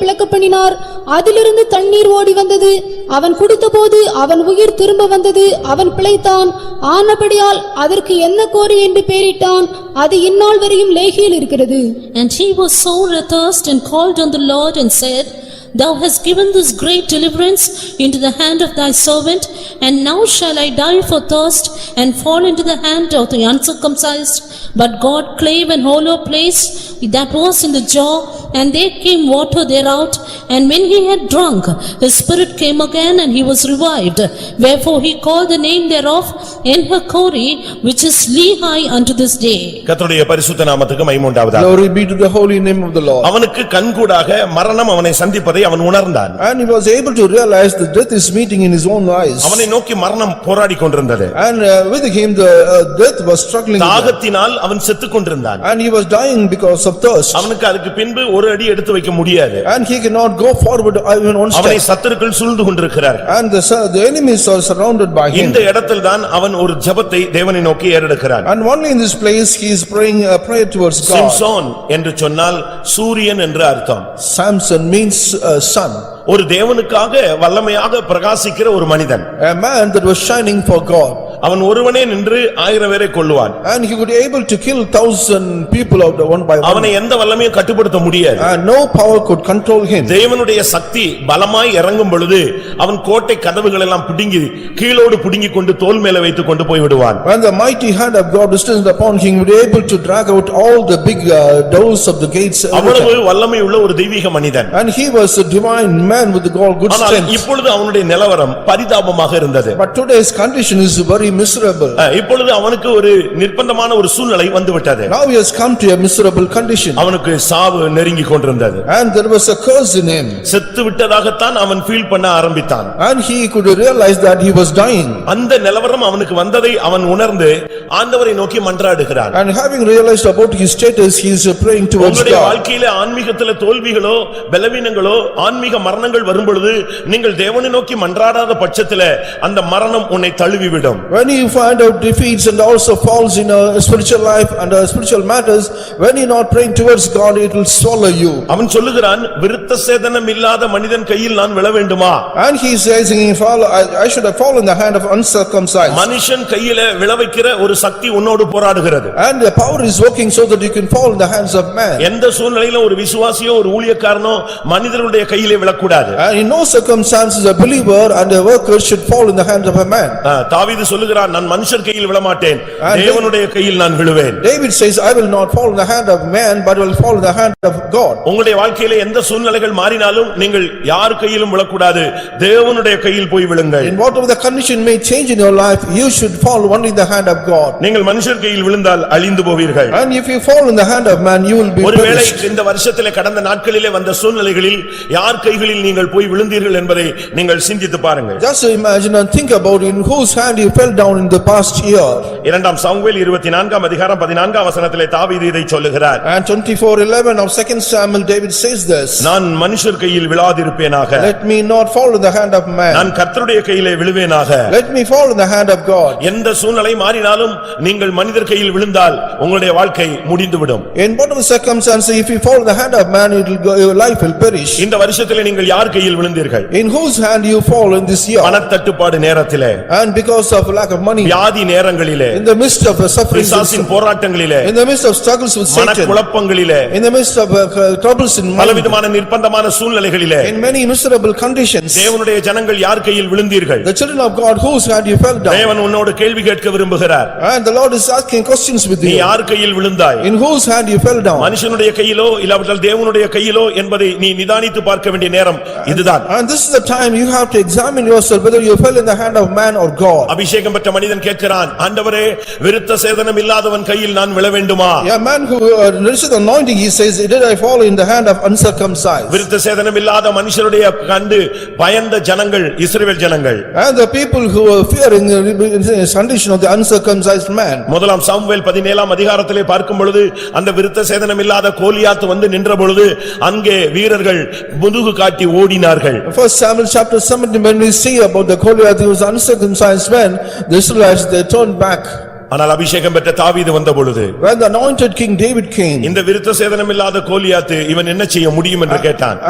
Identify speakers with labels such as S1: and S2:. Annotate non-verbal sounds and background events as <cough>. S1: பிளக்க பண்ணினார் அதிலிருந்து தண்ணீர் ஓடி வந்தது அவன் குடித்தபோது அவன் உயிர் திரும்ப வந்தது அவன் பிழைத்தான் ஆனபடியால் அதற்கு என்ன கோரி என்று பெயரிட்டான் அது இந்நாள் வரையும் லேகியில் இருக்கிறது
S2: And he was sore athirst and called on the Lord and said, Thou hast given this great deliverance into the hand of thy servant, and now shall I die for thirst and fall into the hand of the uncircumcised. But God clave an hollow place that was in the jaw, and there came water thereout. And when he had drunk, his spirit came again, and he was revived. Wherefore he called the name thereof Enhakori, which is Lehi unto this day.
S3: கர்த்தருடைய பரிசுத்த நாமத்துக்கு மைமுண்டாவதாக
S4: Glory be to the holy name of the Lord.
S3: அவனுக்கு கண்கூடாக மரணம் அவனை சந்திப்பதை அவன் உணர்ந்தான்
S4: And he was able to realize that death is meeting in his own eyes.
S3: அவனை நோக்கி மரணம் போராடி கொண்டிருந்தது
S4: And uh, with him, the uh, death was struggling with him.
S3: தாகத்தினால் அவன் செத்துக் கொண்டிருந்தான்
S4: And he was dying because of thirst.
S3: அவனுக்கு அதுக்கு பின்பு ஒரு அடி எடுத்து வைக்க முடியாது
S4: And he cannot go forward even one
S3: அவனை
S4: step.
S3: சத்துருக்கள் சூழ்ந்து கொண்டிருக்கிறார்
S4: And the sur- the enemies are surrounded by him.
S3: இந்த இடத்தில்தான் அவன் ஒரு ஜெபத்தை தேவனை நோக்கி ஏறெடுக்கிறான்
S4: And only in this place, he is praying a prayer towards God.
S3: Samson என்று சொன்னால் சூரியன் என்று அர்த்தம்
S4: Samson means uh, sun,
S3: ஒரு தேவனுக்காக வல்லமையாக பிரகாசிக்கிற ஒரு மனிதன்
S4: a man that was shining for God.
S3: அவன் ஒருவனே நின்று ஆயிரம் பேரை கொல்லுவான்
S4: And he would able to kill thousand people out of one by one.
S3: அவனை எந்த வல்லமையும் கட்டுப்படுத்த முடியாது
S4: And no power could control him.
S3: தேவனுடைய சக்தி பலமாய் இறங்கும் பொழுது அவன் கோட்டை கதவுகள் எல்லாம் பிடுங்கி கீழோடு பிடுங்கிக் கொண்டு தோல் மேல வைத்துக் கொண்டு போய் விடுவான்
S4: When the mighty hand of God descended upon him, he was able to drag out all the big uh, doors of the gates.
S3: அவ்வளவு வல்லமை உள்ள ஒரு தெய்வீக மனிதன்
S4: And he was a divine man with all good
S3: ஆனால்
S4: strength.
S3: இப்பொழுது அவனுடைய நிலவரம் பரிதாபமாக இருந்தது
S4: But today's condition is very miserable.
S3: அஹ், இப்பொழுது அவனுக்கு ஒரு நிர்பந்தமான ஒரு சூழ்நிலை வந்துவிட்டது
S4: Now he has come to a miserable condition
S3: அவனுக்கு சாவு நெருங்கிக் கொண்டிருந்தது
S4: and there was a curse in him.
S3: செத்து விட்டதாகத்தான் அவன் ஃபீல் பண்ண ஆரம்பித்தான்
S4: And he could realize that he was dying.
S3: அந்த நிலவரம் அவனுக்கு வந்ததை அவன் உணர்ந்து ஆண்டவரை நோக்கி மன்றாடுகிறான்
S4: And having realized about his status, he is praying towards
S3: உங்களுடைய
S4: God.
S3: வாழ்க்கையில ஆன்மீகத்தில தோல்விகளோ பலவீனங்களோ ஆன்மீக மரணங்கள் வரும்பொழுது நீங்கள் தேவனை நோக்கி மன்றாடாத பட்சத்தில அந்த மரணம் உன்னை தழுவிவிடும்
S4: When you find out defeats and also falls in a spiritual life and uh, spiritual matters, when you're not praying towards God, it will swallow you.
S3: அவன் சொல்லுகிறான் விருத்த சேதனம் இல்லாத மனிதன் கையில் நான் விழ வேண்டுமா
S4: And he says, "If I I should have fallen in the hand of uncircumcised."
S3: மனுஷன் கையில விழ வைக்கிற ஒரு சக்தி உன்னோடு போராடுகிறது
S4: And the power is working so that you can fall in the hands of man.
S3: எந்த சூழ்நிலையிலும் ஒரு விசுவாசியோ ஒரு ஊழியக்காரனோ மனிதனுடைய கையிலே விழக்கூடாது
S4: And in no circumstances a believer and a worker should fall in the hands of a man.
S3: ஆ, தாவீது சொல்லுகிறான் நான் மனுஷர் கையில் விழமாட்டேன் தேவனுடைய கையில் நான் விழுவேன்
S4: David says, "I will not fall in the hand of man, but will fall in the hand of God."
S3: உங்களுடைய வாழ்க்கையிலே எந்த சூழ்நிலைகள் மாறினாலும் நீங்கள் யார் கையிலும் விழக்கூடாது தேவனுடைய கையில் போய் விழுங்கள்
S4: In whatever the condition may change in your life, you should fall only in the hand of God.
S3: நீங்கள் மனுஷர் கையில் விழுந்தால் அழிந்து போவீர்கள்
S4: And if you fall in the hand of man, you will be
S3: ஒருவேளை
S4: perished.
S3: இந்த வருஷத்திலே கடந்த நாட்களிலே வந்த சூழ்நிலைகளில் யார் கைகளில் நீங்கள் போய் விழுந்தீர்கள் என்பதை நீங்கள் சிந்தித்து பாருங்கள்
S4: Just imagine and think about in whose hand you fell down in the past year.
S3: இரண்டாம் சாமுவேல் இருபத்தி நான்காம் அதிகாரம் பதினான்காம் வசனத்திலே தாவீது இதை சொல்லுகிறார்
S4: And twenty-four eleven of second Samuel, David says this.
S3: நான் மனுஷர் கையில் விழாதிருப்பேனாக
S4: <laughs> Let me not fall in the hand of man,
S3: நான் கர்த்தருடைய கையிலே விழுவேனாக
S4: let me fall in the hand of God.
S3: எந்த சூழ்நிலை மாறினாலும் நீங்கள் மனிதர் கையில் விழுந்தால் உங்களுடைய வாழ்க்கை முடிந்துவிடும்
S4: In whatever circumstance, if you fall in the hand of man, it will go, your life will perish.
S3: இந்த வருஷத்திலே நீங்கள் யார் கையில் விழுந்தீர்கள்
S4: In whose hand you fall in this year,
S3: பணத்தட்டுப்பாடு நேரத்திலே
S4: and because of lack of money,
S3: வியாதி நேரங்களிலே
S4: in the midst of suffering,
S3: பிசாசின் போராட்டங்களிலே
S4: in the midst of struggles with Satan,
S3: மனக்குழப்பங்களிலே
S4: in the midst of uh, troubles in money,
S3: பலவிதமான நிர்பந்தமான சூழ்நிலைகளிலே
S4: in many miserable conditions,
S3: தேவனுடைய ஜனங்கள் யார் கையில் விழுந்தீர்கள்
S4: the children of God, whose hand you fell down,
S3: தேவன் உன்னோடு கேள்வி கேட்க விரும்புகிறார்
S4: and the Lord is asking questions with
S3: நீ
S4: you.
S3: யார் கையில் விழுந்தாய்
S4: In whose hand you fell down,
S3: மனுஷனுடைய கையிலோ இல்லாவிட்டால் தேவனுடைய கையிலோ என்பதை நீ நிதானித்து பார்க்க வேண்டிய நேரம் இதுதான்
S4: and this is the time you have to examine yourself whether you fell in the hand of man or God.
S3: அபிஷேகம் பெற்ற மனிதன் கேட்கிறான் ஆண்டவரே விருத்த சேதனம் இல்லாதவன் கையில் நான் விழ வேண்டுமா
S4: A man who uh, received anointing, he says, "Did I fall in the hand of uncircumcised?"
S3: விருத்த சேதனம் இல்லாத மனுஷருடைய கண்டு பயந்த ஜனங்கள் இஸ்ரவேல் ஜனங்கள்
S4: And the people who were fearing uh, the condition of the uncircumcised man.
S3: முதலாம் சாமுவேல் பதினேலாம் அதிகாரத்திலே பார்க்கும் பொழுது அந்த விருத்த சேதனம் இல்லாத கோலியாத்து வந்து நின்ற பொழுது அங்கே வீரர்கள் முதுகு காட்டி ஓடினார்கள்
S4: First Samuel chapter 17, when we see about the Goliath, he was uncircumcised man, the Israelites, they turned back.
S3: ஆனால் அபிஷேகம் பெற்ற தாவீது வந்த பொழுது
S4: When the anointed king David came,
S3: இந்த விருத்த சேதனம் இல்லாத கோலியாத்து இவன் என்ன செய்ய முடியும் என்று கேட்டான்